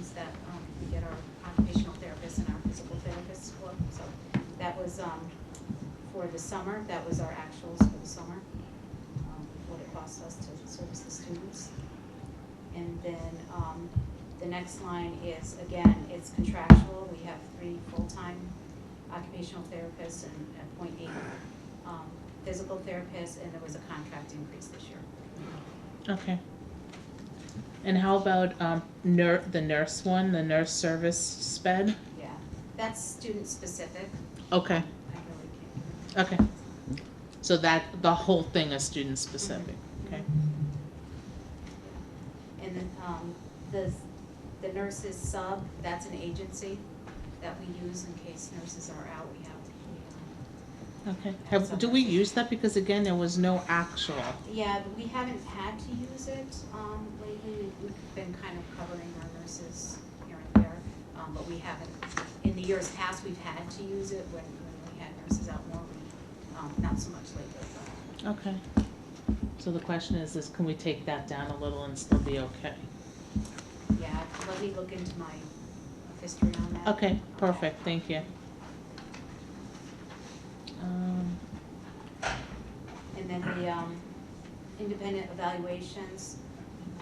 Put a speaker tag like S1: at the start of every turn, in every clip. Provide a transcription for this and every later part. S1: um, um, for the summer, that was our actuals for the summer, um, what it cost us to service the students. And then, um, the next line is, again, it's contractual, we have three full-time occupational therapists and a point eight, um, physical therapists, and there was a contract increase this year.
S2: Okay. And how about um, nur- the nurse one, the nurse service sped?
S1: Yeah, that's student-specific,
S2: Okay,
S1: I really can't.
S2: okay. So that the whole thing is student specific. Okay.
S1: And then, um, the, the nurses sub, that's an agency that we use in case nurses are out, we have, we,
S2: Okay. Have, do we use that because again there was no actual?
S1: um, yeah, we haven't had to use it, um, lately, We- we've been kind of covering our nurses here and there, um, but we haven't, in the years past, we've had to use it when, when we had nurses out more, we, um, not so much lately, but,
S2: Okay. So the question is, is can we take that down a little and still be okay?
S1: yeah, let me look into my history on that.
S2: Okay, perfect. Thank you. Um,
S1: And then the um, independent evaluations,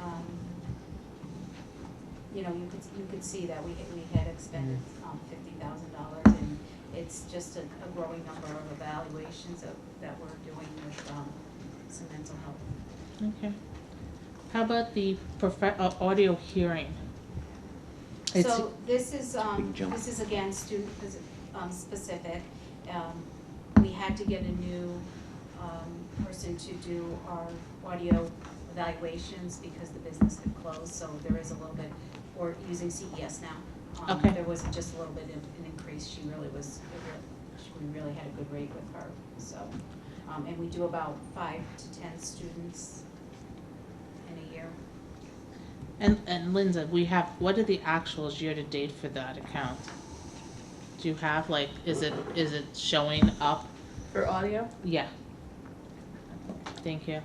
S1: um, you know, you could, you could see that we, we had expended um, fifty thousand dollars, and it's just a a growing number of evaluations that, that we're doing with um, some mental health.
S2: okay. How about the profe- uh, audio hearing? It's-
S1: So this is, um,
S3: Big jump.
S1: this is again student pos- um, specific. Um, We had to get a new um, person to do our audio evaluations because the business had closed, so there is a little bit, we're using CES now. Um,
S2: Okay.
S1: There was just a little bit of an increase, she really was, she- we really had a good rate with her, so. um, And we do about five to ten students in a year.
S2: And, and Linda, we have, what are the actuals year to date for that account? Do you have, like, is it, is it showing up?
S4: For audio?
S2: Yeah. Thank you.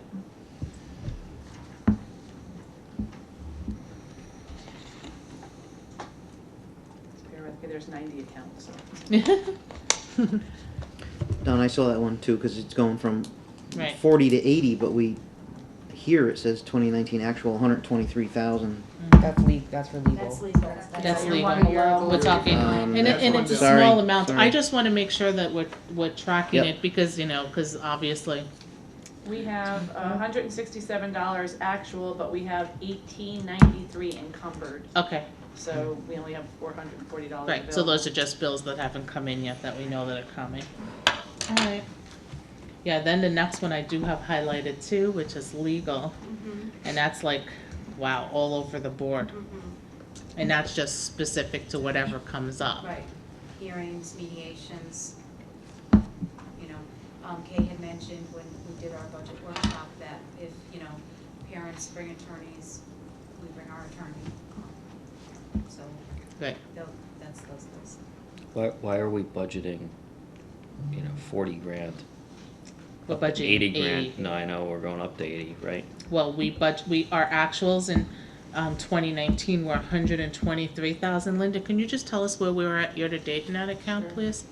S4: Bear with me, there's ninety accounts.
S3: Don, I saw that one too, because it's going from
S2: Right.
S3: forty to eighty, but we, here it says twenty nineteen actual, hundred twenty-three thousand.
S5: That's legal. That's for legal.
S1: That's legal.
S2: That's
S4: You're
S2: legal.
S4: one below.
S2: We're talking,
S3: Um,
S2: and it,
S3: that's
S2: and
S3: one
S2: it's a
S3: down.
S2: small
S3: Sorry,
S2: amount, I
S3: sorry.
S2: just wanna make sure that we're, we're tracking
S3: Yep.
S2: it, because, you know, cause obviously,
S4: We have
S2: Uh-huh.
S4: hundred and sixty-seven dollars actual, but we have eighteen ninety-three encumbered,
S2: okay,
S4: so we only have four hundred and forty dollars
S2: right, so those are just bills that haven't come in yet, that we know that are coming. Alright. Yeah, then the next one I do have highlighted too, which is legal.
S1: Mhm,
S2: And that's like, wow, all over the board.
S1: mhm.
S2: And that's just specific to whatever comes up.
S1: Right, hearings, mediations, you know, um, Kay had mentioned when we did our budget workshop that if, you know, parents bring attorneys, we bring our attorney. um, So,
S2: Right.
S1: tho- that's those lists.
S6: Why, why are we budgeting, you know, forty grand?
S2: We're
S6: up to
S2: budgeting
S6: Eighty grand,
S2: 80.
S6: no, I know, we're going up to eighty, right?
S2: Well, we budget, we, our actuals in, um, twenty nineteen were hundred and twenty-three thousand. Linda, can you just tell us where we were at year-to-date in that account,
S4: Sure.
S2: please?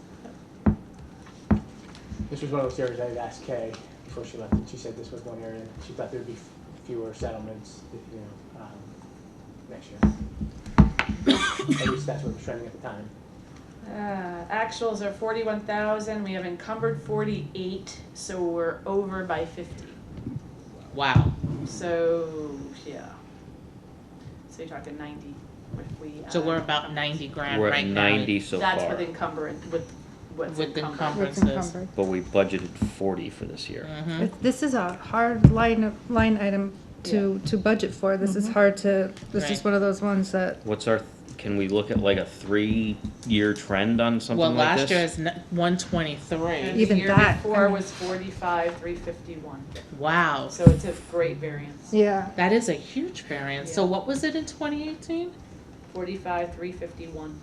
S7: This was one of those areas I had asked Kay before she left, and she said this was one area that she thought there'd be fewer settlements, you know, um, next year. At least that's what was trending at the time.
S4: Uh, actuals are forty-one thousand, we have encumbered forty-eight, so we're over by fifty,
S2: Wow.
S4: so, yeah. So you're talking ninety, if we.
S2: So
S4: add
S2: we're about
S4: encumbrance.
S2: ninety grand
S6: We're
S2: right
S6: at
S2: now.
S6: ninety so
S4: That's with
S6: far,
S4: encumbrance, with what's
S2: With
S4: encumbered.
S2: encumbered.
S8: It's
S2: Differences.
S8: encumbered.
S6: but we budgeted forty for this year.
S2: Mhm.
S8: It- This is a hard line, of- line item to, to budget for. This
S5: Mm-hmm.
S8: is hard to, this
S2: Right.
S8: is one of those ones that,
S6: What's our, th- can we look at like a three-year trend on
S2: Well,
S6: something like
S2: last year
S6: this?
S2: is one twenty-three.
S4: And
S8: Even that, I
S4: The year before
S8: mean-
S4: was forty-five, three fifty-one,
S2: Wow.
S4: so it's a great variance.
S8: yeah.
S2: That is a huge variance. So
S4: Yeah.
S2: what was it in twenty eighteen?
S4: Forty-five, three fifty-one.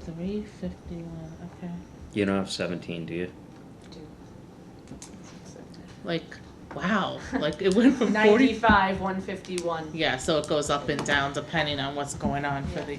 S2: Three fifty-one, okay.
S6: You don't have seventeen, do you?
S2: Like, wow, like it went from forty.
S4: Ninety-five, one fifty-one.
S2: Yeah, so it goes up and down depending on what's going on for the